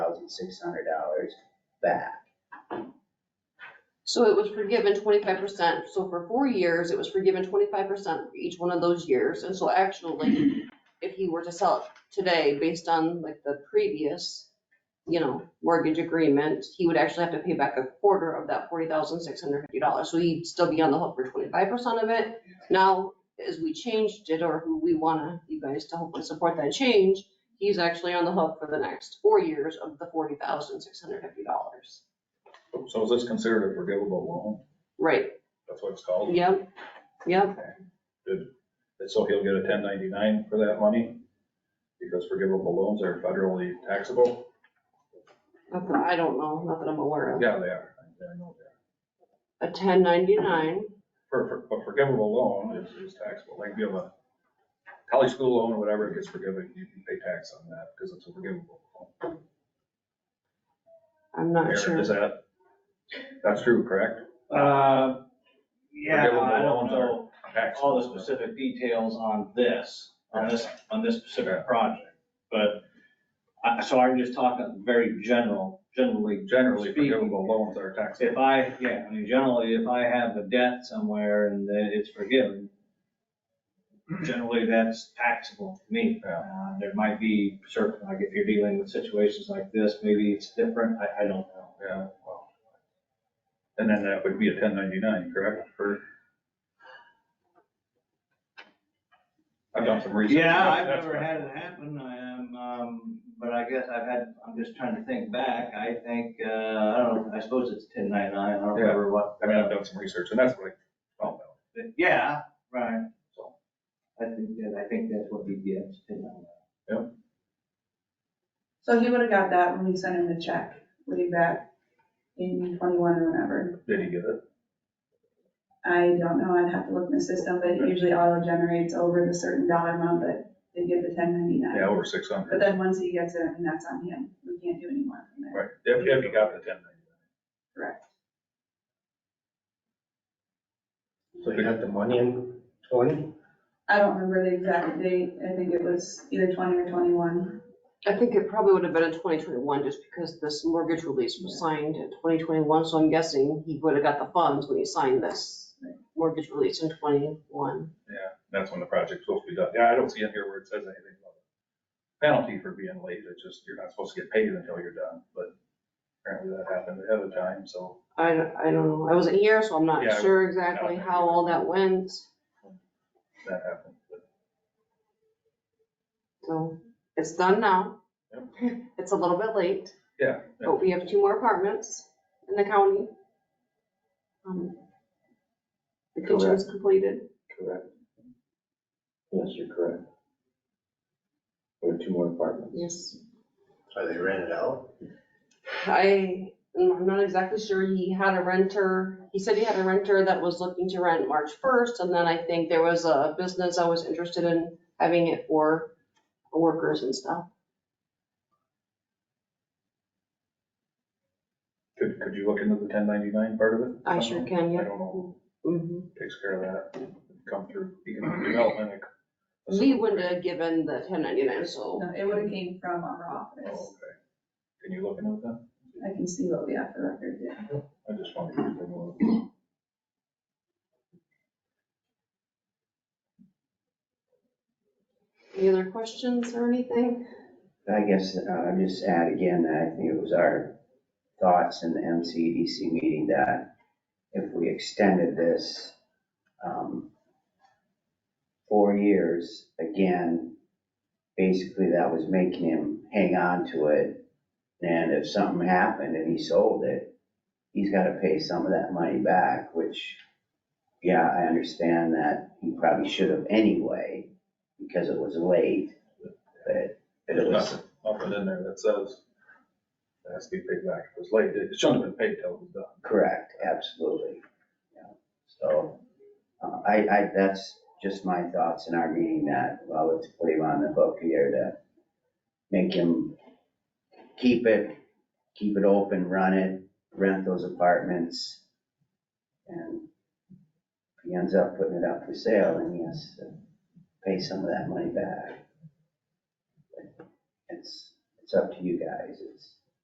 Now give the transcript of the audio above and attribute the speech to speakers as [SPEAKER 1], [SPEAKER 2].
[SPEAKER 1] six hundred dollars back.
[SPEAKER 2] So it was forgiven twenty-five percent, so for four years, it was forgiven twenty-five percent for each one of those years, and so actually, if he were to sell it today, based on like the previous, you know, mortgage agreement, he would actually have to pay back a quarter of that forty thousand six hundred fifty dollars, so he'd still be on the hook for twenty-five percent of it. Now, as we changed it, or who we wanna, you guys to hopefully support that change, he's actually on the hook for the next four years of the forty thousand six hundred fifty dollars.
[SPEAKER 3] So is this considered a forgivable loan?
[SPEAKER 2] Right,
[SPEAKER 3] That's what it's called?
[SPEAKER 2] yep, yep.
[SPEAKER 3] And So he'll get a ten ninety-nine for that money? Because forgivable loans are federally taxable?
[SPEAKER 2] Not that I don't know, not that I'm aware of.
[SPEAKER 3] Yeah, they are. I know they are.
[SPEAKER 2] A ten ninety-nine,
[SPEAKER 3] For, for, but forgivable loan is, is taxable, like if you have a college school loan or whatever, it gets forgiven, you can pay tax on that because it's a forgivable loan.
[SPEAKER 2] I'm not
[SPEAKER 3] Aaron,
[SPEAKER 2] sure.
[SPEAKER 3] Is that, that's true, correct?
[SPEAKER 4] Uh, yeah,
[SPEAKER 3] Forgivable
[SPEAKER 4] I don't
[SPEAKER 3] loans are
[SPEAKER 4] know
[SPEAKER 3] Taxable.
[SPEAKER 4] all the specific details on this, on this, on this
[SPEAKER 3] Yeah.
[SPEAKER 4] specific project. But, I so I'm just talking very general, generally.
[SPEAKER 3] Generally,
[SPEAKER 4] speaking.
[SPEAKER 3] forgivable loans are
[SPEAKER 4] If
[SPEAKER 3] taxable.
[SPEAKER 4] I, yeah, I mean, generally, if I have a debt somewhere and then it's forgiven, generally that's taxable to me.
[SPEAKER 3] Yeah.
[SPEAKER 4] Uh, There might be certain, like if you're dealing with situations like this, maybe it's different, I, I don't know.
[SPEAKER 3] Yeah, well. And then that would be a ten ninety-nine, correct, for? I've done some research.
[SPEAKER 4] Yeah, I've
[SPEAKER 3] That's
[SPEAKER 4] never
[SPEAKER 3] right.
[SPEAKER 4] had it happen, I am, um, but I guess I've had, I'm just trying to think back, I think, uh, I don't know, I suppose it's ten ninety-nine, I don't
[SPEAKER 3] Yeah.
[SPEAKER 4] remember what.
[SPEAKER 3] I mean, I've done some research, and that's what I found out.
[SPEAKER 4] Yeah, right,
[SPEAKER 3] So.
[SPEAKER 4] I think, that- I think that's what he gets, ten ninety-nine.
[SPEAKER 1] So he would have got that when we sent him the check way back in twenty-one or whenever.
[SPEAKER 3] Did he get it?
[SPEAKER 1] I don't know, I'd have to look in the system, but it usually auto generates over the certain dollar amount that they give the ten
[SPEAKER 3] Yeah,
[SPEAKER 1] ninety-nine.
[SPEAKER 3] over six
[SPEAKER 1] But
[SPEAKER 3] hundred.
[SPEAKER 1] then once he gets it, I mean, that's on him, we can't do any more from there,
[SPEAKER 3] Right, if, if he got the ten ninety-nine.
[SPEAKER 1] correct?
[SPEAKER 5] So you got the money in twenty?
[SPEAKER 1] I don't remember the exact date, I think it was either twenty or twenty-one.
[SPEAKER 2] I think it probably would have been in twenty twenty-one, just because this mortgage release was signed in twenty twenty-one, so I'm guessing he would have got the funds when he signed this mortgage release in twenty-one.
[SPEAKER 3] That's when the project's supposed to be done. Yeah, I don't see it here where it says anything about a penalty for being late. It's just, you're not supposed to get paid until you're done, but apparently that happened ahead of time, so.
[SPEAKER 2] I, don't- I don't know, I wasn't here, so I'm not
[SPEAKER 3] Yeah, I
[SPEAKER 2] sure exactly
[SPEAKER 3] not
[SPEAKER 2] how
[SPEAKER 3] here.
[SPEAKER 2] all that went,
[SPEAKER 3] that happened. but-
[SPEAKER 2] so it's done now.
[SPEAKER 3] Yep.
[SPEAKER 2] It's a little bit late.
[SPEAKER 3] Yeah. yeah.
[SPEAKER 2] But we have two more apartments in the county. Um, The kitchen's completed.
[SPEAKER 5] Correct. Yes, you're correct. There are two more apartments.
[SPEAKER 2] Yes.
[SPEAKER 5] Are they rented out?
[SPEAKER 2] I, I'm not exactly sure. He had a renter, he said he had a renter that was looking to rent March 1st. And then I think there was a business that was interested in having it for workers and stuff.
[SPEAKER 3] Could, could you look into the ten ninety-nine part of it?
[SPEAKER 2] I sure can,
[SPEAKER 3] I
[SPEAKER 2] yeah.
[SPEAKER 3] don't know
[SPEAKER 2] Mhm.
[SPEAKER 3] who takes care of that, come through economic development. like-
[SPEAKER 2] We wouldn't have given the 1099, so
[SPEAKER 1] No, It would have came from our office,
[SPEAKER 3] Oh, okay. Can you look into that?
[SPEAKER 1] I can see what we have for record, yeah.
[SPEAKER 3] I just wanted to. take a look.
[SPEAKER 2] any other questions or anything?
[SPEAKER 6] I guess uh, I'll just add again that I think it was our thoughts in the MCDC meeting that if we extended this um, four years, again, basically that was making him hang on to it. And if something happened and he sold it, he's got to pay some of that money back, which, yeah, I understand that he probably should have anyway because it was late, but but it
[SPEAKER 3] There's
[SPEAKER 6] was.
[SPEAKER 3] nothing, nothing in there that says it has to be paid back. It was late. It shouldn't have been paid till it was done.
[SPEAKER 6] Correct, absolutely. Yeah. So, uh, I, I, that's just my thoughts in our meeting that, well, let's put him on the hook here to make him keep it, keep it open, run it, rent those apartments. And if he ends up putting it up for sale, then he has to pay some of that money back. It's, it's up to you guys, it's